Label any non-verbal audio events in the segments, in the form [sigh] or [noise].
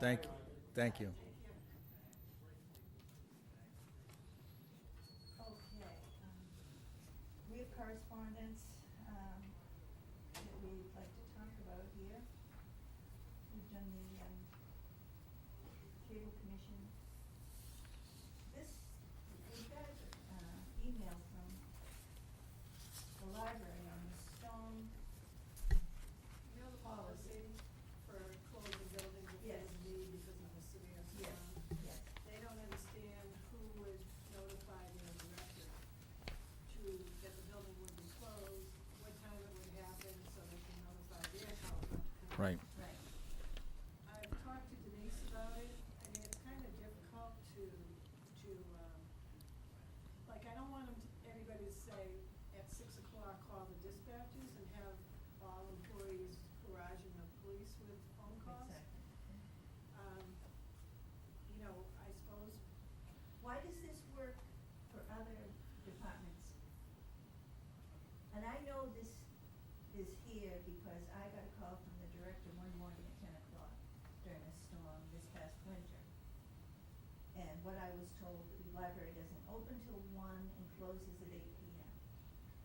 Thank, thank you. Okay, um, we have correspondence, um, that we'd like to talk about here. We've done the, um, cable commission. This, we got, uh, email from the library on the stone, You know the policy for closing buildings if Yes. there's need because of the severe storm? Yes, yes. They don't understand who would notify their director to, that the building would be closed, what time it would happen, so they can notify their house. Right. right, I've talked to Denise about it, I mean, it's kind of difficult to, to, um, like, I don't want 'em to- everybody to say, at six o'clock, call the dispatchers and have all employees barraging the police with phone calls. exactly. Um, you know, I suppose, Why does this work for other departments? And I know this is here because I got a call from the director one morning at ten o'clock during a storm this past winter. And what I was told, the library doesn't open till one and closes at eight P M.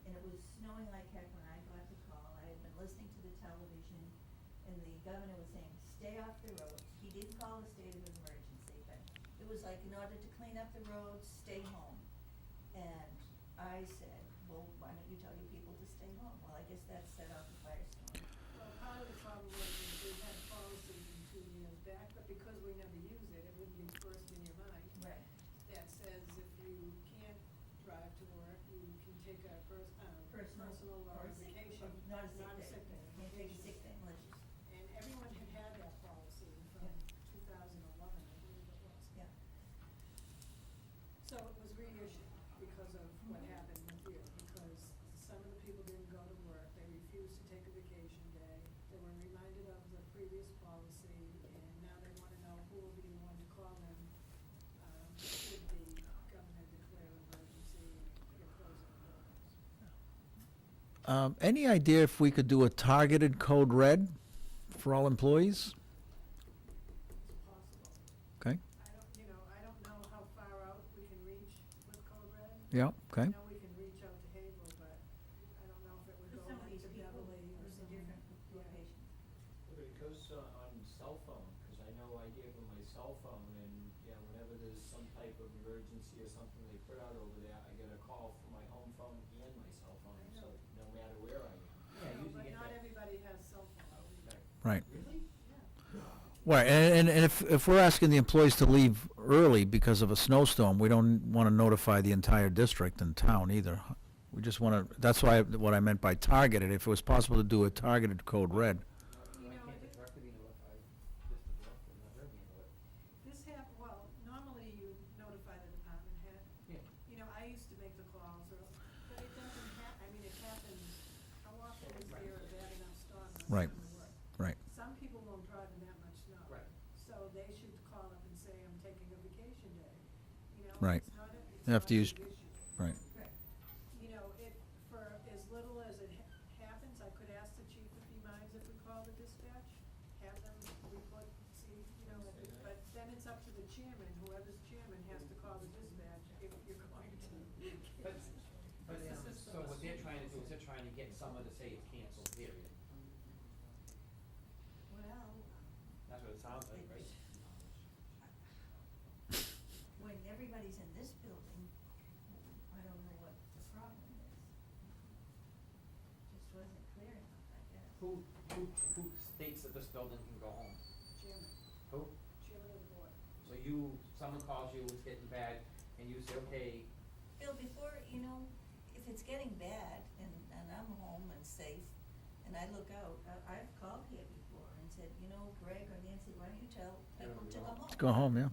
And it was snowing like heck when I got the call. I had been listening to the television and the governor was saying, stay off the roads. He didn't call a state of emergency, but it was like, in order to clean up the roads, stay home. And I said, well, why don't you tell your people to stay home? Well, I guess that set off a firestorm. well, part of the problem was that we had a policy two years back, but because we never use it, it wouldn't be first in your mind. Right. that says if you can't drive to work, you can take a pers- uh, Personal. personal or sick- vacation. or Not a sick day. Can't take a vacation. sick day unless you- And everyone had had that policy from Yeah. two thousand eleven, I believe it was. yeah. So it was reissued because of what Mhm. happened with you, because some of the people didn't go to work, they refused to take a vacation day. They were reminded of the previous policy, and now they wanna know who will be the one to call them, um, should the governor declare emergency or close the buildings. Um, any idea if we could do a targeted code red for all employees? It's possible. Okay, I don't, you know, I don't know how far out we can reach with Code Red. yeah, okay, I know we can reach out to Havel, but I don't know if it But would go some of like these to people Beverly live in or something. different Yeah. locations. But it goes uh, on cell phone, because I know I gave them my cell phone, and, you know, whenever there's some type of emergency or something they put out over there, I get a call from my home phone and my cell phone, I so know. no matter where I am. No, Yeah, I usually But get not that- everybody has cell Oh, phones. okay. right. Really? Yeah, Right, and, and- and if, if we're asking the employees to leave early because of a snowstorm, we don't want to notify the entire district and town either. We just want to, that's why, what I meant by targeted, if it was possible to do a targeted code red. You Why know, can't it- the director be notified? Just the director, not her being notified. this hap, well, normally you notify the department head. Yeah. You know, I used to make the calls, or, but it doesn't hap, I mean, it happens, how often is Right. there a bad enough storm that's Right. gonna work? Right, Some people won't drive in that much snow. Right. So they should call up and say, I'm taking a vacation day, you know? Right. It's not a, it's They have not to a use- big issue. right. Right. you know, it, for as little as it ha- happens, I could ask the chief if he minds if we call the dispatch, have them report, see, you know, if it- but then it's up to the chairman, whoever's chairman has to call the dispatch if you're [laughs] going to. But- But, It's a um, system so of what they're sweet trying to do is policy. they're trying to get someone to say it's canceled, period. Well, That's what it sounds like, right? [laughs] when everybody's in this building, I don't know what the problem is. Just wasn't clear enough, I guess. Who, who, who states that this building can go home? Chairman, Who? chairman of the board. So you, someone calls you, it's getting bad, and you say, okay, Bill, before, you know, if it's getting bad and, and I'm home and safe and I look out, I, I've called here before and said, you know, Greg or Nancy, why don't you tell people to go home? Go home, yeah.